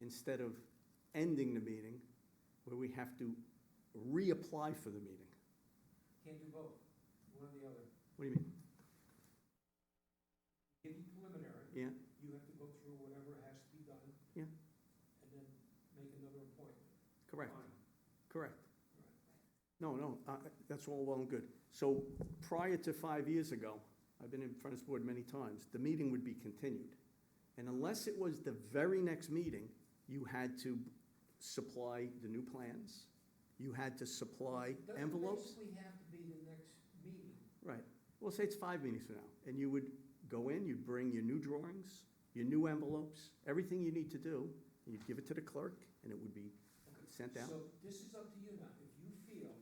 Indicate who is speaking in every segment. Speaker 1: instead of ending the meeting, where we have to reapply for the meeting.
Speaker 2: Can't do both, one or the other.
Speaker 1: What do you mean?
Speaker 2: Give you preliminary,
Speaker 1: Yeah,
Speaker 2: you have to go through whatever has to be done.
Speaker 1: Yeah.
Speaker 2: And then make another appointment.
Speaker 1: correct,
Speaker 2: Fine.
Speaker 1: correct.
Speaker 2: Right.
Speaker 1: No, no, uh, that's all well and good. So prior to five years ago, I've been in front of this board many times, the meeting would be continued. And unless it was the very next meeting, you had to supply the new plans, you had to supply
Speaker 2: It doesn't
Speaker 1: envelopes.
Speaker 2: basically have to be the next meeting.
Speaker 1: Right, well, say it's five meetings from now, and you would go in, you'd bring your new drawings, your new envelopes, everything you need to do, and you'd give it to the clerk, and it would be
Speaker 2: Okay.
Speaker 1: sent out.
Speaker 2: So this is up to you now. If you feel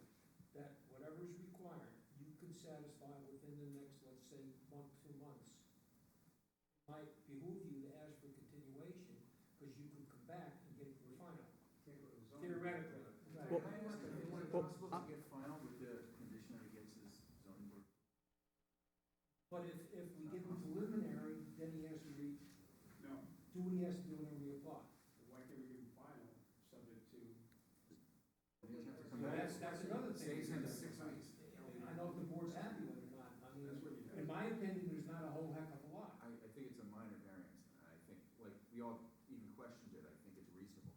Speaker 2: that whatever is required, you can satisfy within the next, let's say, month, two months, it might behoove you to ask for continuation, because you could come back and get it refined. Theoretically.
Speaker 1: Well- uh,
Speaker 3: Can I ask, is it
Speaker 1: Well,
Speaker 3: possible
Speaker 1: I-
Speaker 3: to get final with the condition that he gets his zoning board?
Speaker 2: But if, if we give him preliminary, then he has to re,
Speaker 4: No,
Speaker 2: do what he has to do and then reapply.
Speaker 4: why can't we do final, subject to?
Speaker 3: He doesn't have to come
Speaker 2: So
Speaker 3: back?
Speaker 2: that's, that's another thing.
Speaker 4: Stays in the six weeks.
Speaker 2: I don't know if the board's happy with it or not. I mean,
Speaker 4: That's what you
Speaker 2: in
Speaker 4: have.
Speaker 2: my opinion, there's not a whole heck of a lot.
Speaker 3: I, I think it's a minor variance, and I think, like, we all even questioned it, I think it's reasonable.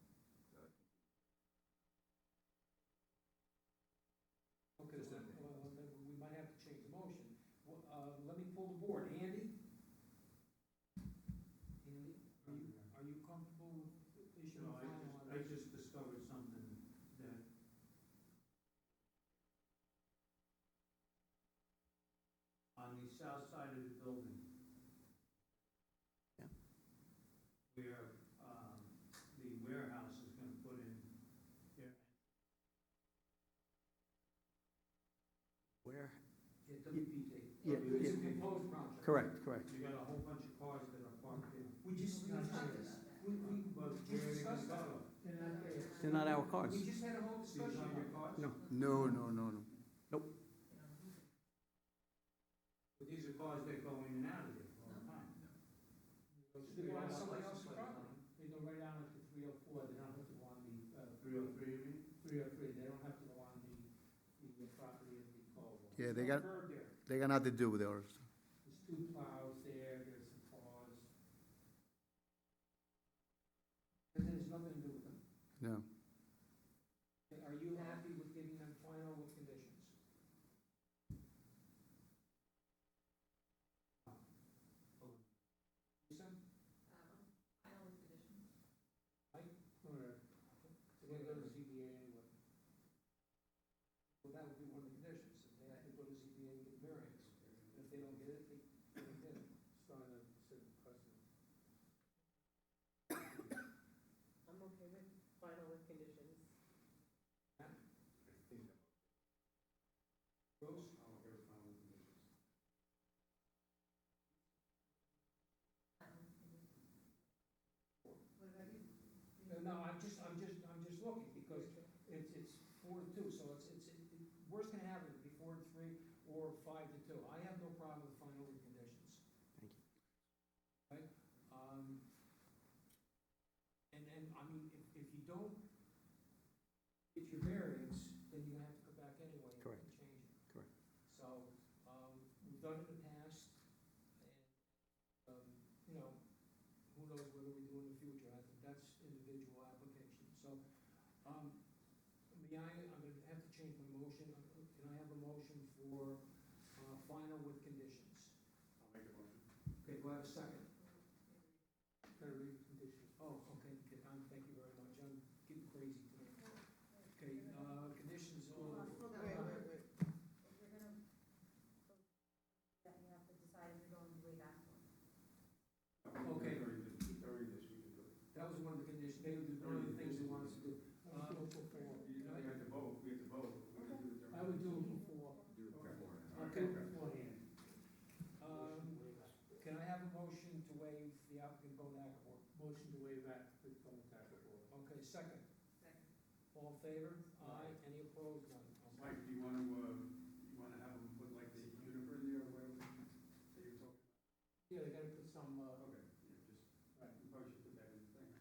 Speaker 2: Okay, well, well, then we might have to change the motion. Well, Uh, let me pull the board. Andy? Andy, are you, are you comfortable with issuing
Speaker 4: No,
Speaker 2: a
Speaker 4: I
Speaker 2: final
Speaker 4: just,
Speaker 2: on
Speaker 4: I
Speaker 2: this?
Speaker 4: just discovered something that. On the south side of the building.
Speaker 1: Yeah.
Speaker 4: Where, um, the warehouse is gonna put in there.
Speaker 1: Where?
Speaker 2: Yeah, WPT.
Speaker 1: Yeah,
Speaker 2: It's a
Speaker 1: yeah.
Speaker 2: proposed project.
Speaker 1: Correct, correct.
Speaker 4: You got a whole bunch of cars that are parked in.
Speaker 2: We just, we
Speaker 4: Not
Speaker 2: discussed
Speaker 4: sure.
Speaker 2: this. We, we,
Speaker 4: But
Speaker 2: we
Speaker 4: where are they gonna
Speaker 2: discussed that.
Speaker 4: go?
Speaker 1: They're not our cars.
Speaker 2: We just had a whole
Speaker 4: These
Speaker 2: discussion
Speaker 4: are
Speaker 2: on
Speaker 4: your
Speaker 2: it.
Speaker 4: cars?
Speaker 1: No.
Speaker 3: No, no, no, no.
Speaker 4: But these are cars that go in and out of there all the time.
Speaker 2: They go on somebody else's property. They go right down to three oh four, they don't have to go on the, uh,
Speaker 4: Three oh three, you mean?
Speaker 2: three oh three, they don't have to go on the, the property of the Caldwell.
Speaker 5: Yeah, they got-
Speaker 2: There's no curb there.
Speaker 5: They got nothing to do with ours.
Speaker 2: There's two plows there, there's some cars. And then there's nothing to do with them.
Speaker 5: No.
Speaker 2: Are you happy with giving them final with conditions? Lisa? Mike? Or, so they go to ZBA anyway. Well, that would be one of the conditions, if they have to go to ZBA and get variance, if they don't get it, they, they get it. Starting a certain precedent.
Speaker 6: I'm okay with final with conditions.
Speaker 2: Rose?
Speaker 6: What about you?
Speaker 2: No, No, I'm just, I'm just, I'm just looking, because It's, it's four to two, so it's, it's, it- worst can happen, it'd be four to three or five to two. I have no problem with final written conditions.
Speaker 1: Thank you.
Speaker 2: Right, um, and, and, I mean, if, if you don't get your variance, then you're gonna have to go back anyway and
Speaker 1: Correct.
Speaker 2: change it.
Speaker 1: Correct.
Speaker 2: So, um, we've done it in the past, and, um, you know, who knows whether we do in the future, I think that's individual application, so, um, may I, I'm gonna have to change my motion, Uh, can I have a motion for, uh, final with conditions?
Speaker 4: I'll make a motion.
Speaker 2: Okay, do I have a second? Gotta read the conditions. Oh, okay, okay, um, thank you very much, I'm getting crazy tonight. Okay, uh, conditions
Speaker 6: Hold
Speaker 2: on.
Speaker 6: on, hold on.
Speaker 2: Wait, wait,
Speaker 6: You're gonna, that you have to decide if you're going way back one.
Speaker 2: Okay.
Speaker 4: During this, during this, we can do it.
Speaker 2: That was one of the conditions, they were one of the things they wanted to do. Uh,
Speaker 4: You know, we have to vote, we have to vote. We're gonna do it during-
Speaker 2: I would do it before,
Speaker 3: Do it
Speaker 4: Okay.
Speaker 3: before.
Speaker 2: I'll do it beforehand. Um, can I have a motion to waive the applicant going to Accord? Motion to waive applicant going to Okay, second,
Speaker 6: Second.
Speaker 2: all in favor? Aye, any opposed? None. Okay.
Speaker 4: Mike, do you wanna, uh, you wanna have them put like the juniper there or whatever that you're talking?
Speaker 2: Yeah, they gotta uh,